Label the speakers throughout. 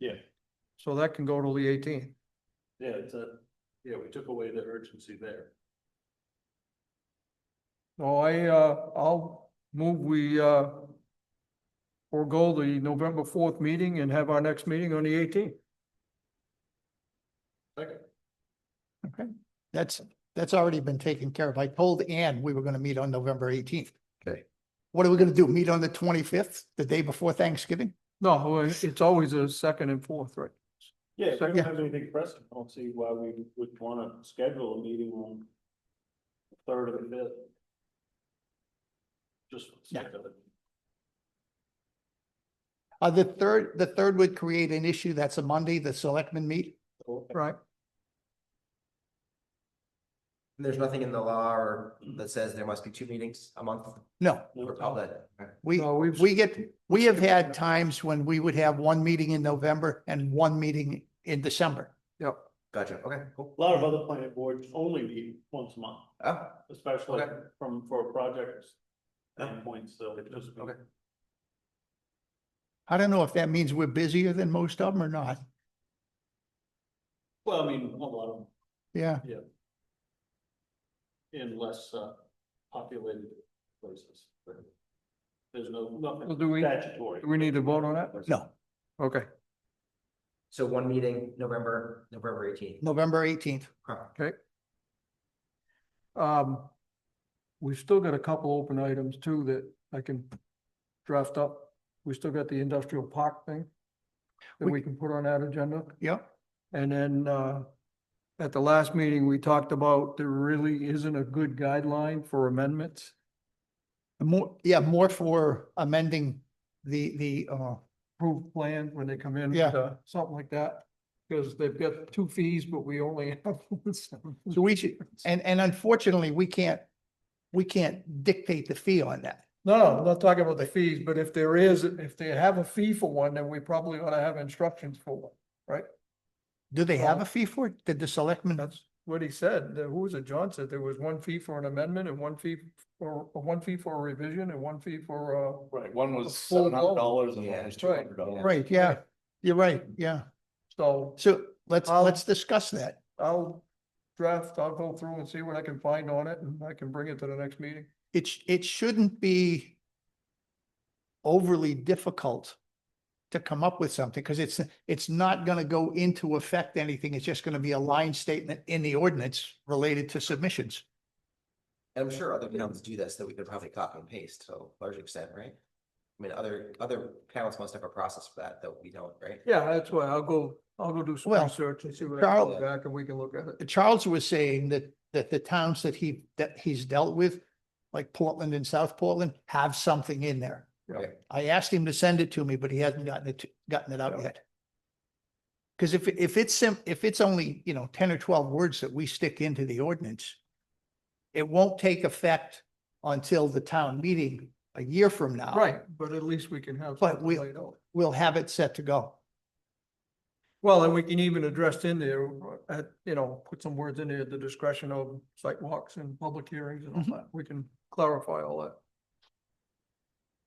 Speaker 1: Yeah,
Speaker 2: So that can go till the eighteenth.
Speaker 1: yeah, it's a, yeah, we took away the urgency there.
Speaker 2: No, I, uh, I'll move, we, uh, forego the November fourth meeting and have our next meeting on the eighteenth.
Speaker 1: Second,
Speaker 3: That's, that's already been taken care of. I told Ann we were gonna meet on November eighteenth.
Speaker 2: Okay.
Speaker 3: What are we gonna do? Meet on the twenty-fifth, the day before Thanksgiving?
Speaker 2: No, it's always a second and fourth, right?
Speaker 1: yeah, if we
Speaker 2: Second.
Speaker 1: don't have anything pressing, I don't see why we would wanna schedule a meeting on the third or the fifth. Just. for the sake of it.
Speaker 3: Uh, the third, the third would create an issue. That's a Monday, the selectmen meet.
Speaker 1: Okay.
Speaker 2: Right?
Speaker 4: There's nothing in the law or that says there must be two meetings a month
Speaker 3: No,
Speaker 4: for all that.
Speaker 3: we,
Speaker 2: No, we've-
Speaker 3: we get, we have had times when we would have one meeting in November and one meeting in December.
Speaker 2: Yep.
Speaker 4: Gotcha, okay, cool.
Speaker 1: A lot of other planning boards only meet once a month,
Speaker 4: Oh,
Speaker 1: especially
Speaker 4: Okay.
Speaker 1: from, for projects. Endpoints, so it just.
Speaker 4: Okay.
Speaker 3: I don't know if that means we're busier than most of them or not.
Speaker 1: Well, I mean, a lot of,
Speaker 3: Yeah,
Speaker 1: them in less, uh, populated places. There's no,
Speaker 2: Well,
Speaker 1: nothing
Speaker 2: do we-
Speaker 1: statutory.
Speaker 2: Do we need to vote on that?
Speaker 3: no,
Speaker 2: Okay,
Speaker 4: so one meeting, November, November eighteenth.
Speaker 3: November eighteenth.
Speaker 2: okay. Um, we've still got a couple open items too that I can draft up. We still got the industrial park thing that
Speaker 3: We-
Speaker 2: we can put on that agenda.
Speaker 3: Yep.
Speaker 2: And then, uh, at the last meeting, we talked about there really isn't a good guideline for amendments.
Speaker 3: More, yeah, more for amending the, the, uh,
Speaker 2: approved plans when they come in.
Speaker 3: Yeah.
Speaker 2: uh, Something like that, because they've got two fees, but we only have. one seven.
Speaker 3: so we should, and, and unfortunately, we can't, we can't dictate the fee on that.
Speaker 2: No, no, I'm not talking about the fees, but if there is, if they have a fee for one, then we probably ought to have instructions for one.
Speaker 3: Do they have
Speaker 2: Well-
Speaker 3: a fee for it? Did the selectmen?
Speaker 2: That's what he said. The- Who was it? John said there was one fee for an amendment and one fee for, uh, one fee for a revision and one fee for, uh,
Speaker 5: Right, one
Speaker 2: A
Speaker 5: was
Speaker 2: full
Speaker 5: seven
Speaker 2: blown.
Speaker 5: hundred dollars and
Speaker 4: Yeah,
Speaker 5: one was two
Speaker 2: right.
Speaker 5: hundred dollars.
Speaker 3: Right, yeah, you're right, yeah.
Speaker 2: so
Speaker 3: So let's,
Speaker 2: I'll-
Speaker 3: let's discuss that.
Speaker 2: I'll draft, I'll go through and see what I can find on it and I can bring it to the next meeting.
Speaker 3: It, sh- it shouldn't be overly difficult to come up with something, because it's, it's not gonna go into effect anything. It's just gonna be a line statement in the ordinance related to submissions.
Speaker 4: I'm sure other towns do this, that we could probably copy and paste to a large extent, right? I mean, other, other towns must have a process for that, though we don't, right?
Speaker 2: Yeah, that's why I'll go, I'll go do some
Speaker 3: Well,
Speaker 2: research and see what I can
Speaker 3: Charles-
Speaker 2: come back and we can look at it.
Speaker 3: Charles was saying that, that the towns that he, that he's dealt with, like Portland and South Portland, have something in there.
Speaker 2: Yeah.
Speaker 3: I asked him to send it to me, but he hasn't gotten it, to- gotten it out
Speaker 2: Yeah.
Speaker 3: yet. Because if, if it's sim, if it's only, you know, ten or twelve words that we stick into the ordinance, it won't take effect until the town meeting a year from now.
Speaker 2: Right, Uh, but at least we can have.
Speaker 3: But
Speaker 2: something
Speaker 3: we-
Speaker 2: laid out.
Speaker 3: We'll have it set to go.
Speaker 2: Well, and we can even address in there, uh, you know, put some words in there, the discretion of site walks and public hearings and all
Speaker 3: Mhm.
Speaker 2: that. We can clarify all that.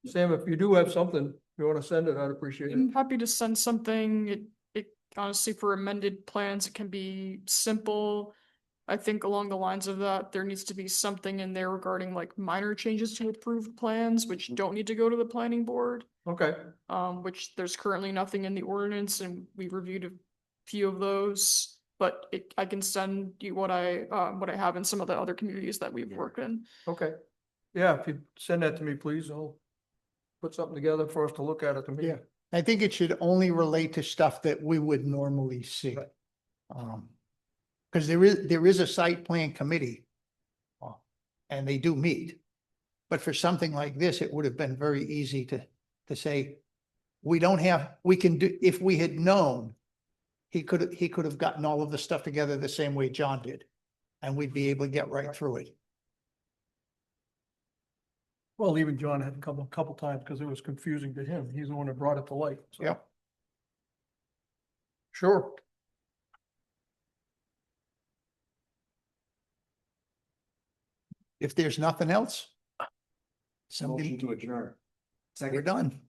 Speaker 2: Sam, if you do have something, you want to send it, I'd appreciate it.
Speaker 6: I'm happy to send something. It, it honestly for amended plans, it can be simple. I think along the lines of that, there needs to be something in there regarding like minor changes to approved plans, which don't need to go to the planning board.
Speaker 3: Mm-hmm.
Speaker 2: Okay,
Speaker 6: Um, which there's currently nothing in the ordinance and we reviewed a few of those. But it, I can send you what I, uh, what I have in some of the other communities that we've worked in.
Speaker 2: okay. Yeah, if you send that to me, please, I'll put something together for us to look at at the meeting.
Speaker 3: Yeah. I think it should only relate to stuff that we would normally see.
Speaker 2: Right.
Speaker 3: Um, because there is, there is a site plan committee. uh, And they do meet. But for something like this, it would have been very easy to, to say, we don't have, we can do, if we had known, he could, he could have gotten all of the stuff together the same way John did. And we'd be able to get right
Speaker 2: Right.
Speaker 3: through it.
Speaker 2: Well, even John had a couple, couple times because it was confusing to him. He's the one that brought it to light. so.
Speaker 3: Yep.
Speaker 2: Sure.
Speaker 3: If there's nothing else, somebody,
Speaker 5: Motion to adjourn.
Speaker 3: we're done.